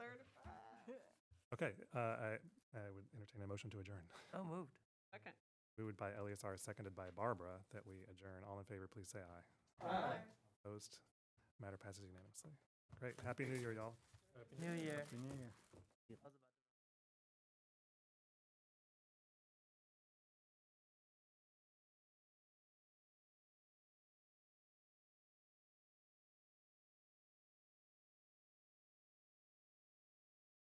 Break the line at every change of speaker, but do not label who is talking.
Okay, uh, I, I would entertain a motion to adjourn.
Oh, moved.
Second.
Moved by Eleazar, seconded by Barbara, that we adjourn. All in favor, please say aye. Opposed? Matter passes unanimously. Great. Happy New Year, y'all.
New year.
Happy New Year.
How's the